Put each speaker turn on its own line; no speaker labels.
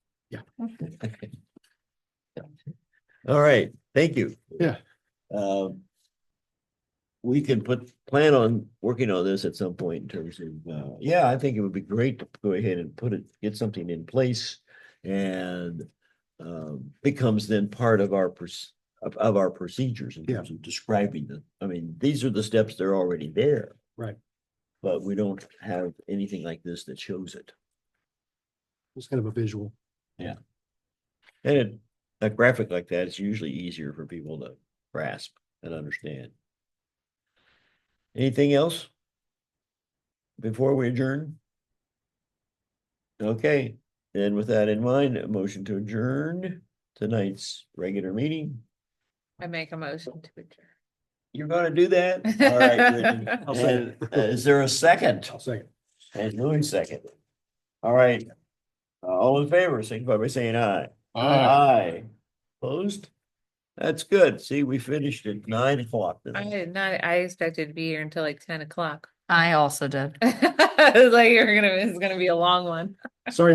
All right, thank you.
Yeah.
Um. We can put, plan on working on this at some point in terms of, uh, yeah, I think it would be great to go ahead and put it, get something in place. And um, becomes then part of our pers- of, of our procedures in
Yeah.
terms of describing the, I mean, these are the steps, they're already there.
Right.
But we don't have anything like this that shows it.
It's kind of a visual.
And it, a graphic like that is usually easier for people to grasp and understand. Anything else? Before we adjourn? Okay, and with that in mind, a motion to adjourn tonight's regular meeting.
I make a motion to adjourn.
You're gonna do that? All right, Brittany.
I'll second
And, uh, Is there a second?
I'll second.
And Louis second. All right. Uh, All in favor, signify by saying aye. Aye. Opposed? That's good. See, we finished at nine o'clock.
I
tonight.
did not, I expected to be here until like ten o'clock.
I also did.
I was like, you're gonna, it's gonna be a long one.
Sorry